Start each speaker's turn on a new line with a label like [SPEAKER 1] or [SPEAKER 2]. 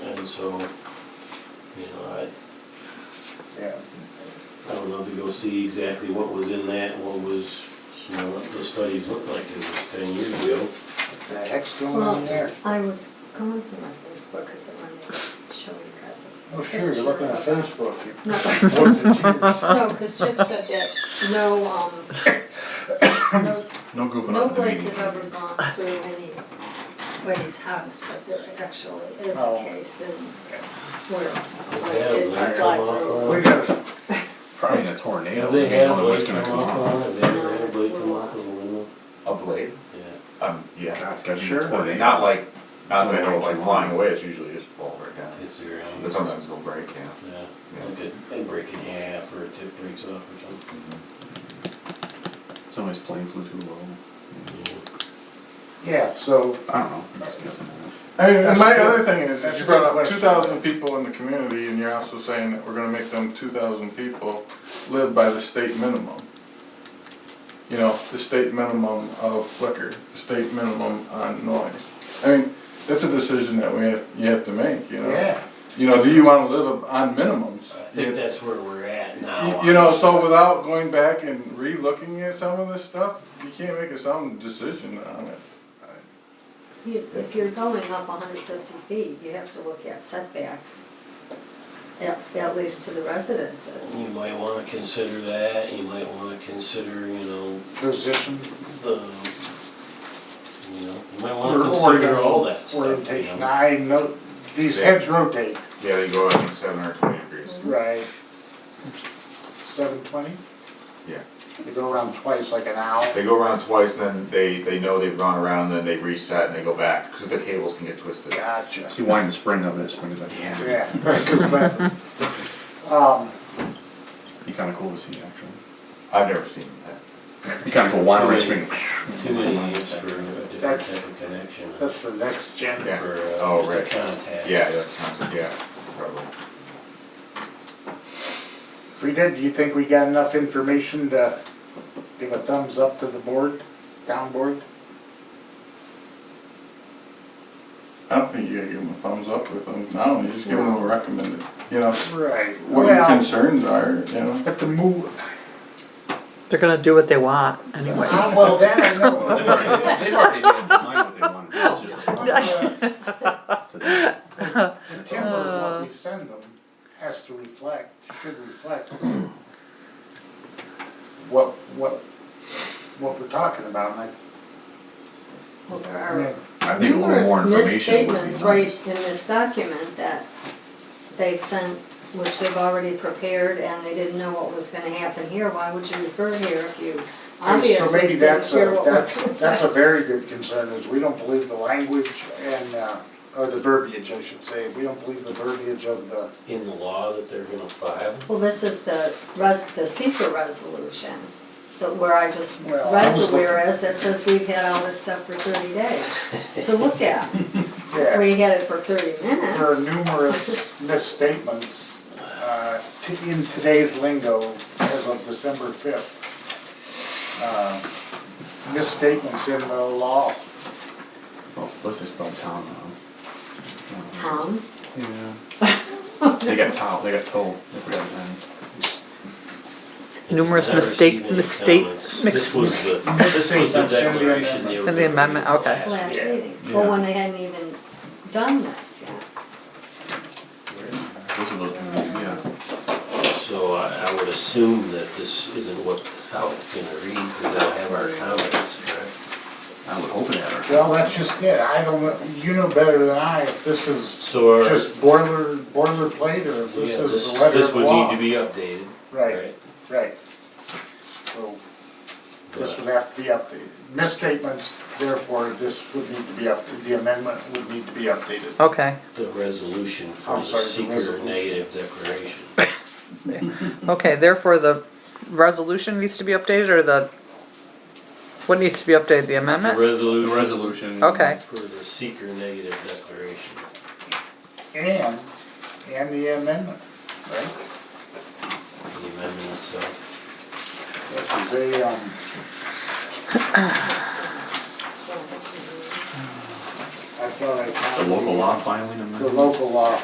[SPEAKER 1] so, you know,
[SPEAKER 2] Yeah.
[SPEAKER 1] I, I would love to go see exactly what was in that, what was, you know, what the studies looked like, it was ten years ago.
[SPEAKER 2] What the heck's going on there?
[SPEAKER 3] I was going through my Facebook because I wanted to show you guys. a
[SPEAKER 2] Oh, sure, you're looking at
[SPEAKER 3] picture of-
[SPEAKER 2] Facebook. you-
[SPEAKER 3] No,
[SPEAKER 2] What the Jesus?
[SPEAKER 3] no, because Chip said that no, um, no,
[SPEAKER 4] No goofing
[SPEAKER 3] no
[SPEAKER 4] up the
[SPEAKER 3] blades
[SPEAKER 4] meeting.
[SPEAKER 3] have ever gone through anybody's house, but there actually is a
[SPEAKER 2] Oh.
[SPEAKER 3] case in where.
[SPEAKER 1] They
[SPEAKER 3] where
[SPEAKER 1] had
[SPEAKER 3] it did
[SPEAKER 1] a blade
[SPEAKER 3] fly
[SPEAKER 1] come off
[SPEAKER 3] through.
[SPEAKER 1] on
[SPEAKER 2] We
[SPEAKER 1] it.
[SPEAKER 2] gotta,
[SPEAKER 4] Probably in a tornado.
[SPEAKER 1] Have they had a
[SPEAKER 4] don't know what's
[SPEAKER 1] blade
[SPEAKER 4] gonna
[SPEAKER 1] come off
[SPEAKER 4] come
[SPEAKER 1] on it, have they ever had a blade come off on a window?
[SPEAKER 5] A blade?
[SPEAKER 1] Yeah,
[SPEAKER 5] Um, yeah,
[SPEAKER 4] God, it's gotta be a
[SPEAKER 5] sure.
[SPEAKER 4] tornado.
[SPEAKER 5] Not like, not that I know,
[SPEAKER 4] Tornado.
[SPEAKER 5] like flying away, it's usually just fall right down.
[SPEAKER 1] hits the ground.
[SPEAKER 5] But sometimes they'll break, yeah.
[SPEAKER 1] Yeah, like a, a break in half or a tip breaks off or something.
[SPEAKER 4] Somebody's plane flew too low.
[SPEAKER 1] you know.
[SPEAKER 2] yeah, so, uh,
[SPEAKER 4] I don't know. I'm just guessing.
[SPEAKER 6] I mean,
[SPEAKER 2] That's
[SPEAKER 6] and my
[SPEAKER 2] good.
[SPEAKER 6] other thing is,
[SPEAKER 2] That's
[SPEAKER 6] is you brought
[SPEAKER 2] a good
[SPEAKER 6] up
[SPEAKER 2] question.
[SPEAKER 6] two thousand people in the community, and you're also saying that we're gonna make them two thousand people live by the state minimum. You know, the state minimum of flicker, the state minimum on noise. I mean, that's a decision that we have, you have to make, you know?
[SPEAKER 2] yeah.
[SPEAKER 6] You know, do you wanna live on minimums?
[SPEAKER 1] I think that's where we're at now.
[SPEAKER 6] You- You know, so without going back and re-looking at some of this stuff, you can't make a sound decision on it.
[SPEAKER 3] You- If you're going up hundred fifty feet, you have to look at setbacks. At, at least to the residences.
[SPEAKER 1] You might wanna consider that, you might wanna consider, you know,
[SPEAKER 2] Position,
[SPEAKER 1] the, you know, you might
[SPEAKER 2] or,
[SPEAKER 1] wanna consider all
[SPEAKER 2] or,
[SPEAKER 1] that stuff, you
[SPEAKER 2] orientation,
[SPEAKER 1] know.
[SPEAKER 2] I know, these heads rotate,
[SPEAKER 5] Yeah, they go, I think, seven hundred twenty degrees.
[SPEAKER 2] right? Seven twenty,
[SPEAKER 5] Yeah.
[SPEAKER 2] they go around twice like an owl.
[SPEAKER 5] They go around twice, then they, they know they've gone around, then they reset and they go back, cause the cables can get twisted.
[SPEAKER 2] Gotcha.
[SPEAKER 4] So you wind the spring of it, it springs back.
[SPEAKER 5] Yeah.
[SPEAKER 2] Yeah, right, goes back. Um,
[SPEAKER 4] Be kinda cool to see, actually.
[SPEAKER 5] I've never seen that.
[SPEAKER 4] Be kinda cool, wind the
[SPEAKER 1] Right.
[SPEAKER 4] spring.
[SPEAKER 1] Too many names for a different type
[SPEAKER 2] That's-
[SPEAKER 1] of connection. uh,
[SPEAKER 2] that's the next gen.
[SPEAKER 5] Yeah.
[SPEAKER 1] For,
[SPEAKER 5] Oh,
[SPEAKER 1] uh,
[SPEAKER 5] right.
[SPEAKER 1] just a contact.
[SPEAKER 5] Yeah, that's kind of, yeah, probably.
[SPEAKER 2] If we did, do you think we got enough information to give a thumbs up to the board, town board?
[SPEAKER 6] I don't think you gotta give them a thumbs up with them, no, you just give them a recommended, you know,
[SPEAKER 2] Right.
[SPEAKER 6] what your
[SPEAKER 2] Well,
[SPEAKER 6] concerns are, you know?
[SPEAKER 2] but the move,
[SPEAKER 7] They're gonna do what they want anyways.
[SPEAKER 2] Ah, well, that I
[SPEAKER 4] They've
[SPEAKER 2] know.
[SPEAKER 4] already- they've already made up mind what they want to do, it's just up to them.
[SPEAKER 2] Uh, The timber, what we send them, has to reflect, should reflect what, what, what we're talking about, and
[SPEAKER 3] Well, there
[SPEAKER 2] I, I
[SPEAKER 3] are
[SPEAKER 2] mean,
[SPEAKER 4] I think a little
[SPEAKER 3] numerous
[SPEAKER 4] more information would be
[SPEAKER 3] misstatements right
[SPEAKER 4] nice.
[SPEAKER 3] in this document that they've sent, which they've already prepared, and they didn't know what was gonna happen here, why would you refer here if you
[SPEAKER 2] so
[SPEAKER 3] obviously
[SPEAKER 2] maybe
[SPEAKER 3] didn't
[SPEAKER 2] that's
[SPEAKER 3] hear
[SPEAKER 2] a,
[SPEAKER 3] what was
[SPEAKER 2] that's,
[SPEAKER 3] said?
[SPEAKER 2] that's a very good concern, is we don't believe the language and, uh, or the verbiage, I should say, we don't believe the verbiage of the
[SPEAKER 1] In the law that they're gonna file,
[SPEAKER 3] Well, this is the res, the secret resolution, but where I just
[SPEAKER 2] Well, I
[SPEAKER 3] read
[SPEAKER 2] was
[SPEAKER 3] the
[SPEAKER 2] looking-
[SPEAKER 3] whereas, it says we've had all this stuff for thirty days to look at.
[SPEAKER 2] Yeah,
[SPEAKER 3] We had it for thirty minutes.
[SPEAKER 2] there are numerous misstatements, uh, t- in today's lingo as of December fifth. Uh, Misstatements in the law.
[SPEAKER 4] Well, Plus they spelled town wrong.
[SPEAKER 3] Tom,
[SPEAKER 4] Yeah. They got towel, they got tow, they forgot that.
[SPEAKER 7] Numerous
[SPEAKER 1] I've never
[SPEAKER 7] mistake-
[SPEAKER 1] seen any
[SPEAKER 7] mistake-
[SPEAKER 1] comments.
[SPEAKER 7] mix-
[SPEAKER 1] This was the, this was the
[SPEAKER 2] misstatements in the
[SPEAKER 1] declaration they
[SPEAKER 2] amendment.
[SPEAKER 1] were.
[SPEAKER 7] In the amendment,
[SPEAKER 1] gonna
[SPEAKER 7] okay.
[SPEAKER 1] do last
[SPEAKER 3] last
[SPEAKER 1] week.
[SPEAKER 3] meeting, well, when they hadn't even done this yet.
[SPEAKER 4] Those are the, yeah.
[SPEAKER 1] So I, I would assume that this isn't what, how it's gonna read, because they'll have our comments, right?
[SPEAKER 4] I would hope it had her.
[SPEAKER 2] Well, that's just it, I don't, know- you know better than I if this is
[SPEAKER 1] So our, yeah,
[SPEAKER 2] just boiler, boilerplate or if this
[SPEAKER 1] this,
[SPEAKER 2] is the letter
[SPEAKER 1] this
[SPEAKER 2] of
[SPEAKER 1] would
[SPEAKER 2] law.
[SPEAKER 1] need to be updated,
[SPEAKER 2] Right,
[SPEAKER 1] right?
[SPEAKER 2] right. So this
[SPEAKER 1] But-
[SPEAKER 2] would have to be updated. Misstatements, therefore, this would need to be updated, the amendment would need to be updated.
[SPEAKER 7] Okay,
[SPEAKER 1] The resolution for
[SPEAKER 2] I'm
[SPEAKER 1] the
[SPEAKER 2] sorry, the
[SPEAKER 1] seeker
[SPEAKER 2] resolution.
[SPEAKER 1] negative declaration.
[SPEAKER 7] okay, therefore the resolution needs to be updated or the, what needs to be updated, the
[SPEAKER 1] The
[SPEAKER 7] amendment?
[SPEAKER 4] The
[SPEAKER 1] resolution
[SPEAKER 4] resolution.
[SPEAKER 7] Okay,
[SPEAKER 1] for the seeker negative declaration.
[SPEAKER 2] And, and the amendment, right?
[SPEAKER 1] The amendment itself.
[SPEAKER 2] So if there's a, um, I thought I.
[SPEAKER 4] The local law filing amendment.
[SPEAKER 2] The local law